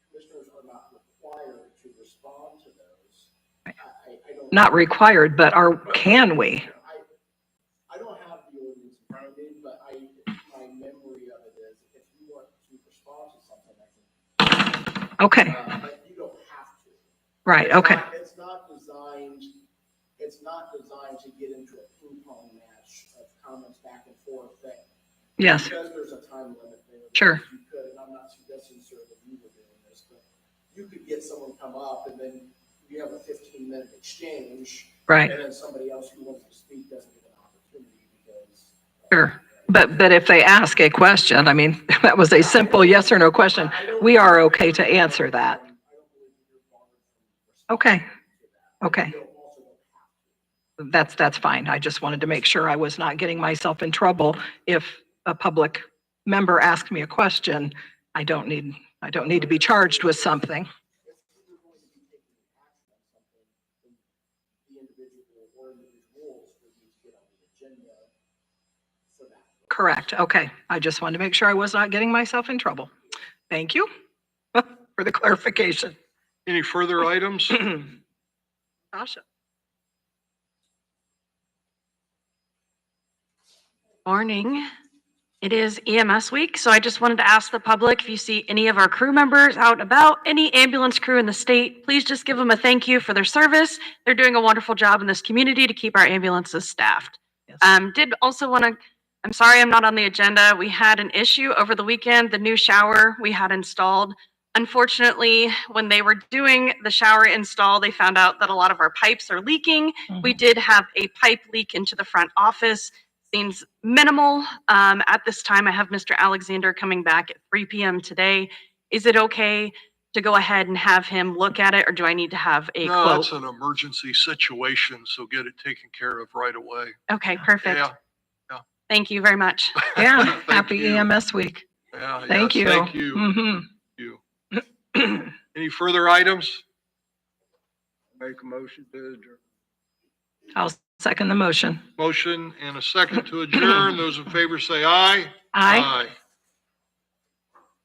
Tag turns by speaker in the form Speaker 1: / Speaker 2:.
Speaker 1: respond to those. I, I, I don't.
Speaker 2: Not required, but are, can we?
Speaker 1: I, I don't have the ordinance in front of me, but I, my memory of it is, if you want to respond to something, I can,
Speaker 2: Okay,
Speaker 1: uh, but you don't have to.
Speaker 2: right,
Speaker 1: It's
Speaker 2: okay,
Speaker 1: not- It's not designed, it's not designed to get into a ping-pong match of comments back and forth that,
Speaker 2: yes,
Speaker 1: because there's a time limit there.
Speaker 2: Sure.
Speaker 1: You could, and I'm not suggesting, sir, that you were doing this, but you could get someone to come up and then you have a fifteen-minute exchange.
Speaker 2: right,
Speaker 1: And then somebody else who wants to speak doesn't get an opportunity because. uh,
Speaker 2: sure. But, but if they ask a question, I mean, that was a simple yes or no question.
Speaker 1: I don't
Speaker 2: We are
Speaker 1: believe-
Speaker 2: okay to answer that.
Speaker 1: I don't believe that you're bothered from
Speaker 2: Okay,
Speaker 1: responding to that.
Speaker 2: okay,
Speaker 1: You don't also don't have to.
Speaker 2: that's, that's fine. I just wanted to make sure I was not getting myself in trouble if a public member asked me a question. I don't need, I don't need to be charged with something.
Speaker 1: If you were going to be taking action on something, then the individual or individuals would need to get on the agenda for that.
Speaker 2: Correct, okay. I just wanted to make sure I was not getting myself in trouble. Thank you for the clarification.
Speaker 3: Any further items?
Speaker 2: Tasha?
Speaker 4: Morning. It is EMS week, so I just wanted to ask the public if you see any of our crew members out and about, any ambulance crew in the state, please just give them a thank you for their service. They're doing a wonderful job in this community to keep our ambulances staffed.
Speaker 2: Yes.
Speaker 4: Um, did also want to, I'm sorry I'm not on the agenda. We had an issue over the weekend, the new shower we had installed. Unfortunately, when they were doing the shower install, they found out that a lot of our pipes are leaking. We did have a pipe leak into the front office. Seems minimal. Um, at this time, I have Mr. Alexander coming back at 3 p.m. today. Is it okay to go ahead and have him look at it, or do I need to have a
Speaker 3: No, it's
Speaker 4: quote?
Speaker 3: an emergency situation, so get it taken care of right away.
Speaker 4: Okay, perfect.
Speaker 3: Yeah,
Speaker 4: Thank you very much.
Speaker 2: Yeah,
Speaker 3: Thank
Speaker 2: happy
Speaker 3: you.
Speaker 2: EMS week.
Speaker 3: yeah.
Speaker 2: Thank you.
Speaker 3: yes, Thank you.
Speaker 2: Mhm.
Speaker 3: you.
Speaker 2: Mm-hmm.
Speaker 3: Any further items?
Speaker 5: Make a motion to adjourn.
Speaker 2: I'll second the motion.
Speaker 3: Motion and a second to adjourn. Those in favor say aye.
Speaker 2: Aye.